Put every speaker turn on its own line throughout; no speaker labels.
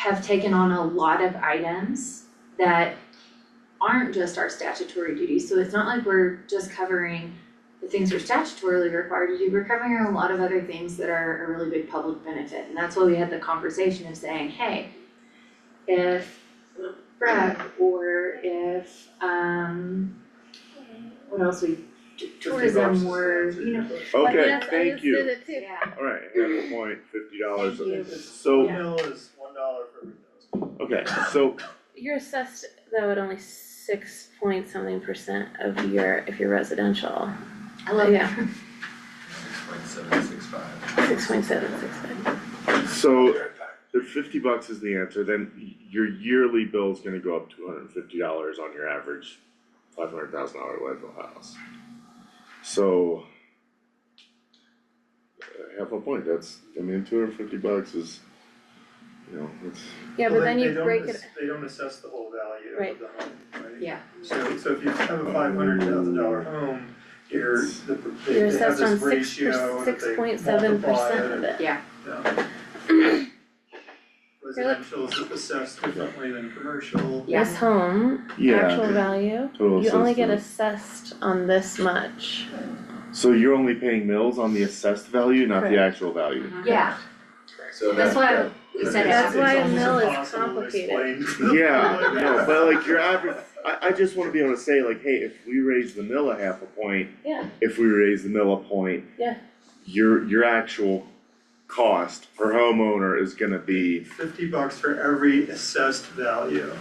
have taken on a lot of items that aren't just our statutory duties, so it's not like we're just covering the things we're statutorily required to do, we're covering a lot of other things that are a really big public benefit, and that's why we had the conversation of saying, hey, if Breck or if um what else we, tourism were, you know,
Like,
Okay,
yes, I
thank
just
you.
did it too.
yeah.
Alright, half a point, fifty dollars.
Thank you.
So,
Yeah.
Oatmeal is one dollar for every thousand.
okay, so,
You're assessed though at only six point something percent of your, if you're residential,
I love
Yeah.
that.
Six point seven six five.
six point seven, six five.
so if fifty bucks is the answer, then y- your yearly bill's gonna go up two hundred and fifty dollars on your average five hundred thousand dollar Leadville house. So uh, half a point, that's, I mean, two hundred and fifty bucks is, you know, it's,
Yeah,
Well,
but
they-
then
they
you
don't
break
ass-
it,
They don't assess the whole value
Right.
of the home, right?
Yeah.
So, so if you have a five hundred thousand dollar home, you're, the, they
you're
they have
assessed on
this
six
ratio that
per, six
they multiply
point seven percent of
and-
it.
yeah. Residential is assessed differently than commercial.
Yeah.
This home,
yeah,
actual value,
total
you only get
assessment.
assessed on this much.
So you're only paying mills on the assessed value, not the actual value?
Uh-huh.
Yeah,
So
that's
that,
why we
But
said half
it's- it's
That's
a
why
almost
mill is
impossible to
complicated.
explain.
Yeah, no, but like your average, I, I just wanna be able to say like, hey, if we raise the mill a half a point,
Yeah,
if we raise the mill a point.
Yeah.
Your, your actual cost per homeowner is gonna be,
Fifty bucks for every assessed value,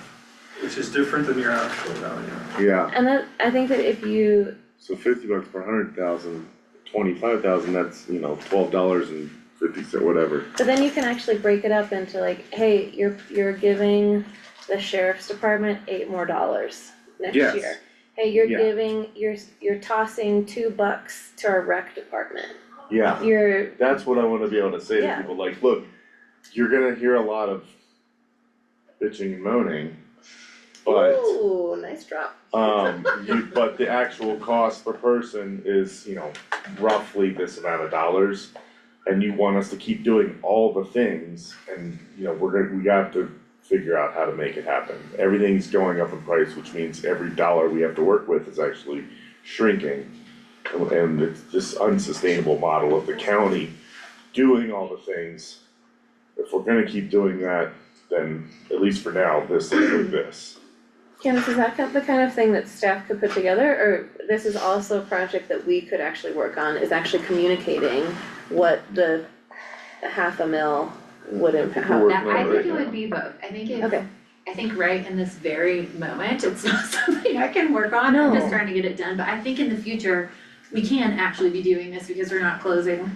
which is different than your actual value.
yeah,
and that, I think that if you,
so fifty bucks per hundred thousand, twenty-five thousand, that's, you know, twelve dollars and fifty cent, whatever.
but then you can actually break it up into like, hey, you're, you're giving the sheriff's department eight more dollars next year.
Yes.
Hey, you're
Yeah.
giving, you're, you're tossing two bucks to our rec department,
Yeah,
you're,
that's what I wanna be able to say to
Yeah.
people, like, look, you're gonna hear a lot of bitching and moaning, but.
ooh, nice drop.
Um, you, but the actual cost per person is, you know, roughly this amount of dollars. And you want us to keep doing all the things and, you know, we're gonna, we have to figure out how to make it happen. Everything's going up in price, which means every dollar we have to work with is actually shrinking. And- And it's this unsustainable model of the county doing all the things. If we're gonna keep doing that, then at least for now, this looks like this.
Candace, is that kind- the kind of thing that staff could put together, or this is also a project that we could actually work on, is actually communicating what the the half a mil would impact,
We're working
That,
on
I think it
right now.
would be both, I think it,
Okay.
I think right in this very moment, it's not something I can work on, I'm just
No.
trying to get it done, but I think in the future, we can actually be doing this because we're not closing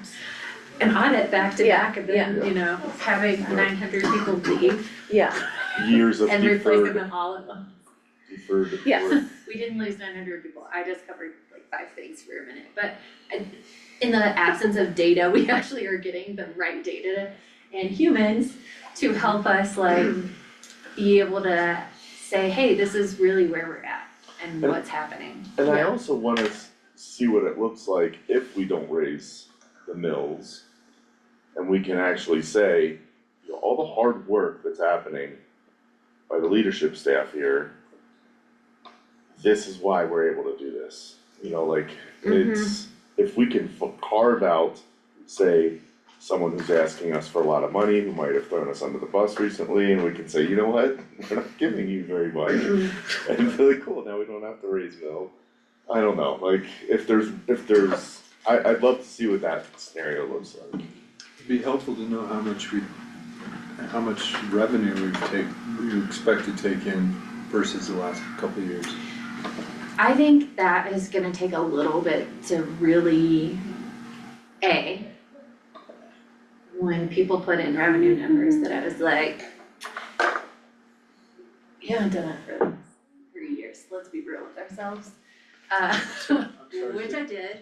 an audit back to
Yeah,
back and then,
yeah.
you know, having
Yeah.
nine hundred people leave
yeah,
years of
and replacing
deferred,
them all at once.
deferred
Yes.
work.
We didn't lose nine hundred people, I just covered like five things for a minute, but I, in the absence of data, we actually are getting the right data and humans to help us like be able to say, hey, this is really where we're at and
And-
what's happening.
And I
Yeah.
also wanna s- see what it looks like if we don't raise the mills. And we can actually say, you know, all the hard work that's happening by the leadership staff here. This is why we're able to do this, you know, like, it's, if we can f- carve out, say. Someone who's asking us for a lot of money, who might have thrown us under the bus recently, and we can say, you know what, we're not giving you very much. And be like, cool, now we don't have to raise mill. I don't know, like, if there's, if there's, I, I'd love to see what that scenario looks like.
It'd be helpful to know how much we, how much revenue we take, we expect to take in versus the last couple of years.
I think that is gonna take a little bit to really, A, when people put in revenue numbers that I was like, we haven't done it for three years, let's be real with ourselves. Uh, which I did,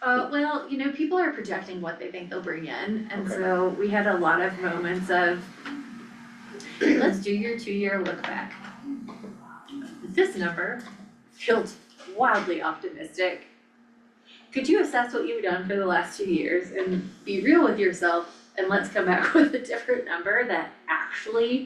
Uh, well, you know, people are projecting what they think they'll bring in, and
Okay.
so we had a lot of moments of, let's do your two-year look back. This number feels wildly optimistic. Could you assess what you've done for the last two years and be real with yourself? and let's come back with a different number that actually